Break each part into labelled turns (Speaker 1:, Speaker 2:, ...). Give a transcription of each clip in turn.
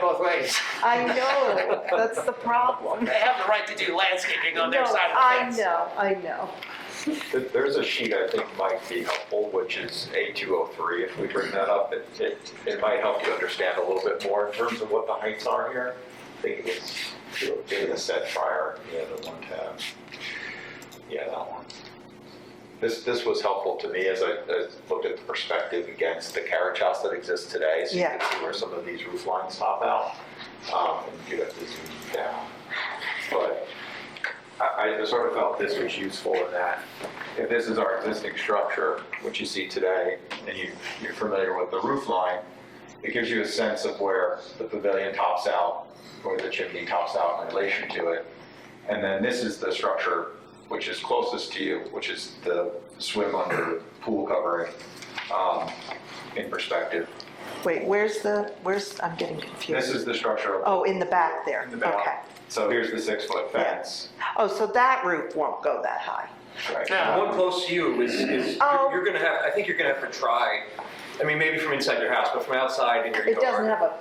Speaker 1: both ways.
Speaker 2: I know, that's the problem.
Speaker 1: They have the right to do landscaping on their
Speaker 2: No,
Speaker 1: side of the fence.
Speaker 2: I know, I know.
Speaker 3: There- There's a sheet I think might be helpful, which is A203. If we bring that up, it, it, it might help you understand a little bit more in terms of what the heights are here. I think it was given a set prior, yeah, the one tab. Yeah, that one. This, this was helpful to me as I, as looked at the perspective against the carriage house that exists today. So you can
Speaker 2: Yeah.
Speaker 3: see where some of these roof lines pop out. Um, and you have to zoom down. But I, I sort of felt this was useful in that if this is our existing structure, which you see today, and you, you're familiar with the roof line, it gives you a sense of where the pavilion tops out, where the chimney tops out in relation to it. And then this is the structure which is closest to you, which is the swim under pool covering, um, in perspective.
Speaker 2: Wait, where's the, where's, I'm getting confused.
Speaker 3: This is the structure
Speaker 2: Oh, in the back there,
Speaker 3: in the
Speaker 2: okay.
Speaker 3: back. So here's the six-foot fence.
Speaker 2: Oh, so that roof won't go that high.
Speaker 3: right?
Speaker 1: Yeah.
Speaker 4: The one close to you is, is,
Speaker 2: Oh.
Speaker 4: you're you're gonna have, I think you're gonna have to try, I mean, maybe from inside your house, but from outside in your yard.
Speaker 2: It doesn't have a,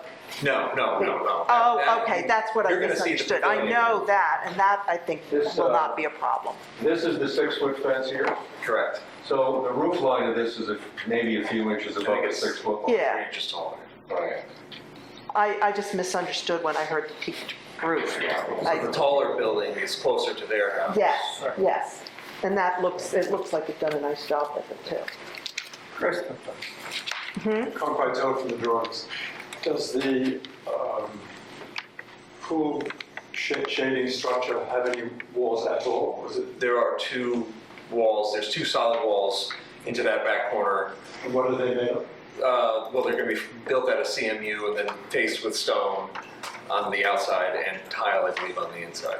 Speaker 4: No, no, no, no.
Speaker 2: oh,
Speaker 4: That-
Speaker 2: okay, that's what I
Speaker 4: you're gonna see the
Speaker 2: misunderstood. I
Speaker 4: pavilion.
Speaker 2: know that, and that I think
Speaker 5: This,
Speaker 2: will
Speaker 5: uh,
Speaker 2: not be a problem.
Speaker 5: This is the six-foot fence here,
Speaker 4: Correct.
Speaker 5: so the roof line of this is a- maybe a few inches above the
Speaker 4: it's-
Speaker 5: six-foot line.
Speaker 2: Yeah,
Speaker 4: Just taller.
Speaker 5: Yeah.
Speaker 2: I, I just misunderstood when I heard the peaked roof. I-
Speaker 4: The taller building is closer to their house.
Speaker 2: Yes, yes. And that looks, it looks like you've done a nice job with it too.
Speaker 6: Chris, can't quite tell from the drawings. Does the um, pool sh- shading structure have any walls at all? Was it,
Speaker 4: There are two walls, there's two solid walls into that back corner.
Speaker 6: and what are they made of?
Speaker 4: Uh, well, they're gonna be built out of CMU and then faced with stone on the outside and tile, I believe, on the inside.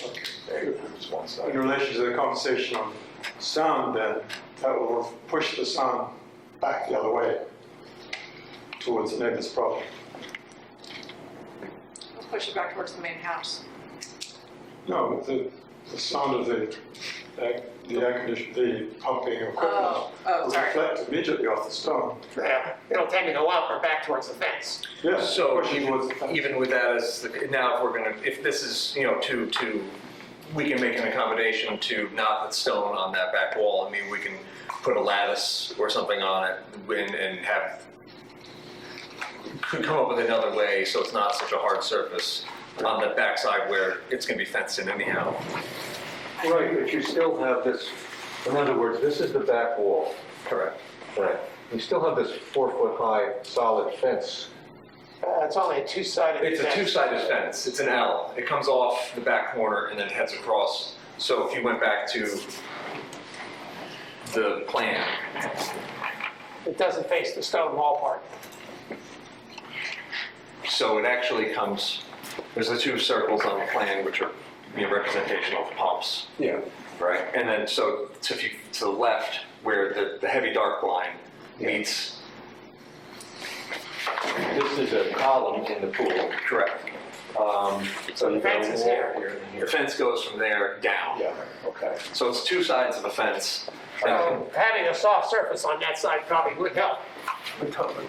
Speaker 3: It's one side.
Speaker 6: In relation to the conversation on sound then, that will push the sound back the other way towards the neighbor's property.
Speaker 7: Let's push it back towards the main house.
Speaker 6: No, the, the sound of the, air- the air condition, the pumping
Speaker 7: Oh,
Speaker 6: equipment
Speaker 7: oh,
Speaker 6: will
Speaker 7: sorry.
Speaker 6: reflect immediately off the stone.
Speaker 1: Yeah, it'll tend to go up or back towards the fence.
Speaker 6: Yes,
Speaker 4: So
Speaker 6: pushing towards the fence.
Speaker 4: even, even with that as, the- now if we're gonna, if this is, you know, to, to, we can make an accommodation to not put stone on that back wall. I mean, we can put a lattice or something on it and, and have, could come up with another way so it's not such a hard surface on the backside where it's gonna be fenced in anyhow.
Speaker 5: Right, but you still have this, in other words, this is the back wall.
Speaker 4: Correct.
Speaker 5: Right. You still have this four-foot-high solid fence.
Speaker 1: Uh, It's only a two-sided fence.
Speaker 4: It's a two-sided fence, it's an L. It comes off the back corner and then heads across. So if you went back to the plan,
Speaker 1: It doesn't face the stone wall part.
Speaker 4: so it actually comes, there's the two circles on the plan which are, you know, representational of pumps.
Speaker 6: Yeah.
Speaker 4: Right. And then, so, so if you, to the left, where the, the heavy dark line meets,
Speaker 5: This is a column in the pool.
Speaker 4: correct.
Speaker 5: Um, So
Speaker 1: The
Speaker 5: you've got a
Speaker 1: fence is
Speaker 5: wall
Speaker 1: here.
Speaker 5: and
Speaker 4: The
Speaker 5: here.
Speaker 4: fence goes from there down.
Speaker 5: Yeah, okay.
Speaker 4: So it's two sides of the fence.
Speaker 8: Oh,
Speaker 1: So Um, having a soft surface on that side probably would help,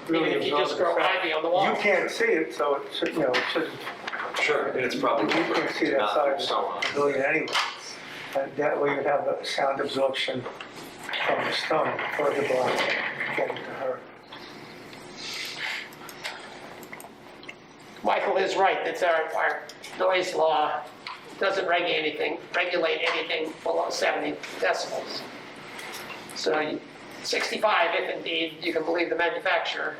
Speaker 1: even if you just grow ivy on the wall.
Speaker 8: You can't see it, so it should, you know, it shouldn't,
Speaker 4: Sure. And it's probably.
Speaker 8: you can't see that
Speaker 4: not
Speaker 8: side of
Speaker 4: so on.
Speaker 8: the pavilion anyway. But that way you'd have the sound absorption from the stone further block getting to her.
Speaker 1: Michael is right, that's our, our noise law doesn't regulate anything, regulate anything below 70 decibels. So you- 65, if indeed you can believe the manufacturer,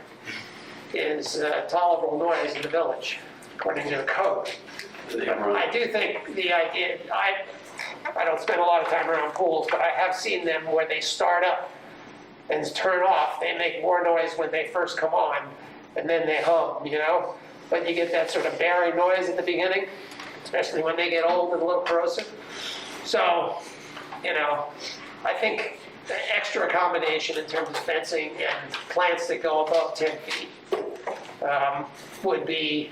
Speaker 1: is uh, tolerable noise in the village, according to the code. I do think the idea, I, I don't spend a lot of time around pools, but I have seen them where they start up and turn off, they make more noise when they first come on, and then they hum, you know? But you get that sort of barry noise at the beginning, especially when they get old and a little corrosive. So, you know, I think the extra accommodation in terms of fencing and plants that go above 10 feet um, would be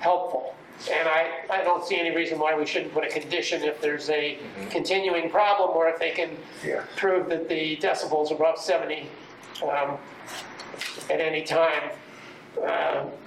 Speaker 1: helpful. And I, I don't see any reason why we shouldn't put a condition if there's a continuing problem or if they can
Speaker 8: Yeah.
Speaker 1: prove that the decibels above 70 um, at any time uh,